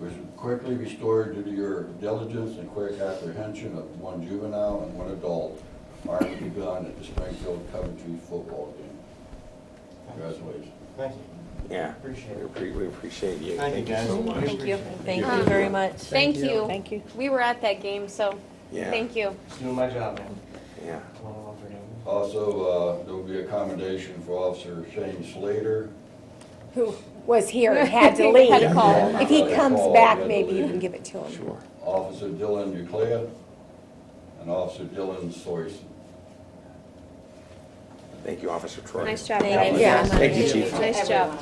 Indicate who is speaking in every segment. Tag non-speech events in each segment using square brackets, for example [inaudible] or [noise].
Speaker 1: was quickly restored due to your diligence and quick apprehension of one juvenile and one adult armed with a gun at the Springfield Coventry football game. Congratulations.
Speaker 2: Thank you.
Speaker 3: Yeah,
Speaker 2: Appreciate
Speaker 3: we
Speaker 2: it.
Speaker 3: appre- we appreciate you.
Speaker 2: Thank you, guys.
Speaker 3: so much.
Speaker 2: Thank
Speaker 4: Thank you.
Speaker 2: you.
Speaker 4: Thank
Speaker 3: Yeah.
Speaker 4: you very much.
Speaker 5: Thank you.
Speaker 4: Thank you.
Speaker 5: We were at that game, so
Speaker 3: Yeah.
Speaker 5: thank you.
Speaker 2: Just doing my job, man.
Speaker 3: Yeah,
Speaker 2: Come on, I'll forget.
Speaker 1: Also, uh, there will be a commendation for Officer Shane Slater.
Speaker 4: Who was here and [laughs] had to
Speaker 5: Had
Speaker 4: leave.
Speaker 5: to call.
Speaker 4: If he
Speaker 1: Had to
Speaker 4: comes
Speaker 1: call, had
Speaker 4: back,
Speaker 1: to
Speaker 4: maybe you
Speaker 1: leave.
Speaker 4: can give it to him.
Speaker 3: sure.
Speaker 1: Officer Dylan Uclea and Officer Dylan Soyson.
Speaker 3: Thank you, Officer Troy.
Speaker 5: Nice job.
Speaker 4: Thank
Speaker 5: guys.
Speaker 4: you. Yeah.
Speaker 3: Thank you, Chief.
Speaker 5: Nice job.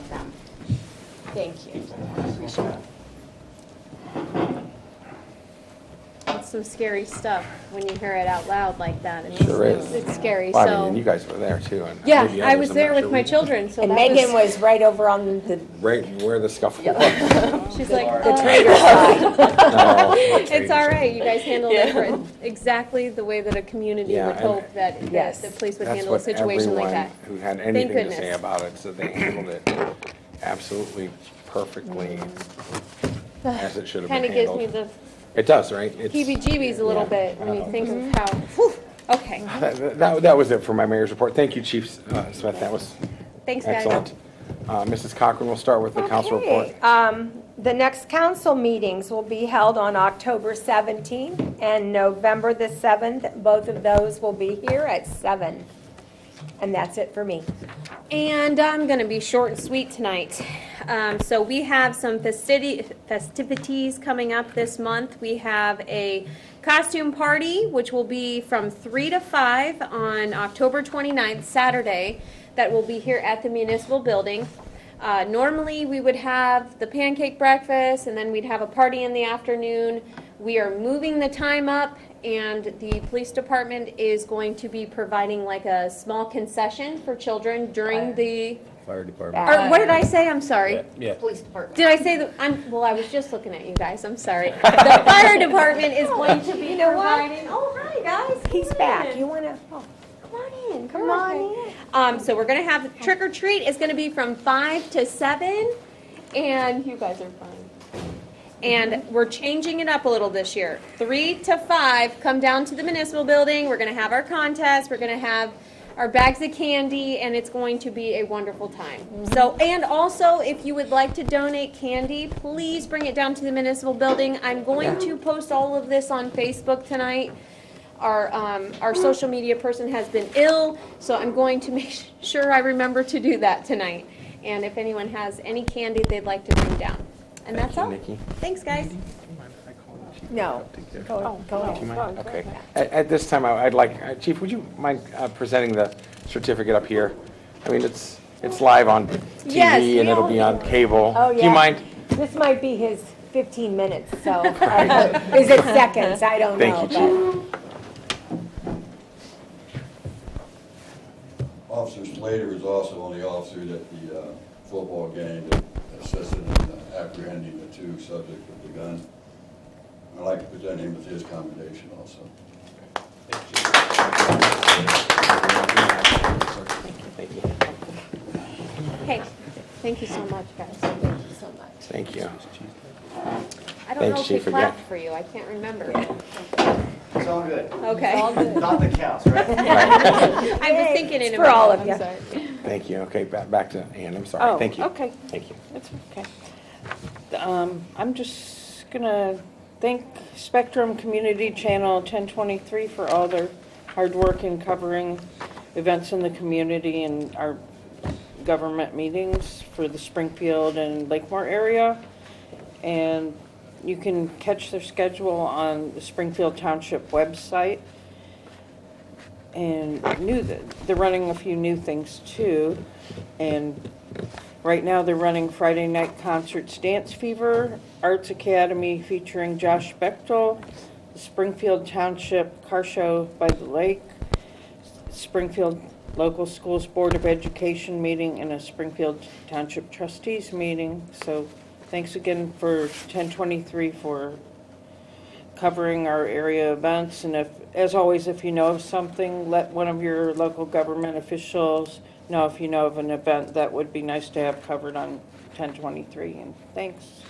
Speaker 5: Thank you. It's some scary stuff when you hear it out loud like that. It's-
Speaker 3: Sure is.
Speaker 5: It's scary,
Speaker 3: Well, I mean, and
Speaker 5: so.
Speaker 3: you guys were there too. and
Speaker 5: Yeah,
Speaker 3: maybe
Speaker 5: I
Speaker 3: others,
Speaker 5: was
Speaker 3: I'm
Speaker 5: there
Speaker 3: not
Speaker 5: with
Speaker 3: sure.
Speaker 5: my
Speaker 3: [laughs]
Speaker 5: children, so
Speaker 4: And
Speaker 5: that
Speaker 4: Megan
Speaker 5: was,
Speaker 4: was right over on the,
Speaker 3: Right where the scuffle
Speaker 5: [laughs]
Speaker 3: was. Oh,
Speaker 5: she's like,
Speaker 4: the
Speaker 5: "Uh,
Speaker 4: traitor
Speaker 5: [laughs]
Speaker 4: side.
Speaker 3: No,
Speaker 5: It's all right, you guys handled it for exactly the way that a community
Speaker 3: Yeah,
Speaker 5: would
Speaker 3: and-
Speaker 5: hope that, that
Speaker 4: Yes.
Speaker 5: the police would
Speaker 3: That's
Speaker 5: handle a
Speaker 3: what
Speaker 5: situation like
Speaker 3: everyone
Speaker 5: that.
Speaker 3: who had anything to
Speaker 5: goodness.
Speaker 3: say about it, so they handled it absolutely perfectly as it should have
Speaker 5: Kind
Speaker 3: been
Speaker 5: of Mm. gives me
Speaker 3: handled.
Speaker 5: the
Speaker 3: It does, right? It's-
Speaker 5: heebie-jeebies a little
Speaker 3: Yeah.
Speaker 5: bit when you
Speaker 3: Wow.
Speaker 5: think of how, whew, okay,
Speaker 3: That, that- that was it for my mayor's report. Thank you, Chief uh, Smith. That was
Speaker 5: thanks, guys.
Speaker 3: excellent. Uh, Mrs. Cochran, we'll start with the council report.
Speaker 4: Okay. Um, The next council meetings will be held on October 17th and November the 7th. Both of those will be here at seven. And that's it for me.
Speaker 5: And I'm going to be short and sweet tonight. Um, So we have some festidi- festivities coming up this month. We have a costume party, which will be from 3 to 5 on October 29th, Saturday, that will be here at the municipal building. Uh, Normally, we would have the pancake breakfast, and then we'd have a party in the afternoon. We are moving the time up, and the police department is going to be providing like a small concession for children during the,
Speaker 6: Fire department.
Speaker 5: or what did I say? I'm sorry.
Speaker 6: Yeah.
Speaker 7: Police department.
Speaker 5: Did I say the, I'm, well, I was just looking at you guys, I'm sorry. The
Speaker 6: [laughs]
Speaker 5: fire department is going to be providing, oh, hi, guys.
Speaker 4: He's
Speaker 5: come
Speaker 4: back.
Speaker 5: in.
Speaker 4: You want to, oh,
Speaker 5: Come on in,
Speaker 4: come on in.
Speaker 5: Um, so we're gonna have trick or treat is gonna be from five to seven, and you guys are fine. And we're changing it up a little this year. Three to five, come down to the municipal building. We're gonna have our contest. We're gonna have our bags of candy, and it's going to be a wonderful time. So, and also, if you would like to donate candy, please bring it down to the municipal building. I'm going to post all of this on Facebook tonight our, um, our social media person has been ill, so I'm going to [laughs] make sure I remember to do that tonight. And if anyone has any candy they'd like to bring down. And that's all.
Speaker 3: Nikki.
Speaker 5: Thanks, guys.
Speaker 4: No. Go go
Speaker 3: Do you
Speaker 4: ahead.
Speaker 3: mind? Okay. At, at this time, I- I'd like, uh, Chief, would you mind uh, presenting the certificate up here? I mean, it's, it's live on
Speaker 5: Yes,
Speaker 3: TV and
Speaker 5: we
Speaker 3: it'll
Speaker 5: all
Speaker 3: be
Speaker 5: know.
Speaker 3: on cable.
Speaker 4: Oh, yeah.
Speaker 3: Do you mind?
Speaker 4: This might be his 15 minutes,
Speaker 3: [laughs]
Speaker 4: so, is it seconds? I don't know.
Speaker 3: Thank you,
Speaker 1: Officer Slater was also only officer at the uh, football game that assisted in apprehending the two subjects with the gun. I'd like to present him with his commendation also.
Speaker 3: Thank you.
Speaker 5: Hey, thank you so much, guys. Thank you so much.
Speaker 3: Thank you.
Speaker 5: I
Speaker 3: Thanks,
Speaker 5: don't know if they
Speaker 3: Chief, again.
Speaker 5: clapped for you. I can't remember.
Speaker 2: It's all good.
Speaker 5: Okay.
Speaker 2: Not the counts, right?
Speaker 5: [laughs] I was thinking in a
Speaker 4: It's for all
Speaker 5: minute.
Speaker 4: of
Speaker 5: I'm sorry.
Speaker 3: Thank you. Okay, back, back to Ann, I'm
Speaker 8: Oh,
Speaker 3: sorry. Thank you.
Speaker 8: okay.
Speaker 3: Thank you.
Speaker 8: That's okay. Um, I'm just gonna thank Spectrum Community Channel 1023 for all their hard work in covering events in the community and our government meetings for the Springfield and Lakemore area. And you can catch their schedule on the Springfield Township website. And new, they're running a few new things too. And Right now, they're running Friday night concerts, Dance Fever, Arts Academy featuring Josh Bechtel, the Springfield Township Car Show by the Lake, Springfield Local Schools Board of Education meeting, and a Springfield Township Trustees meeting. So thanks again for 1023 for covering our area events, and if, as always, if you know of something, let one of your local government officials know if you know of an event that would be nice to have covered on 1023, and thanks.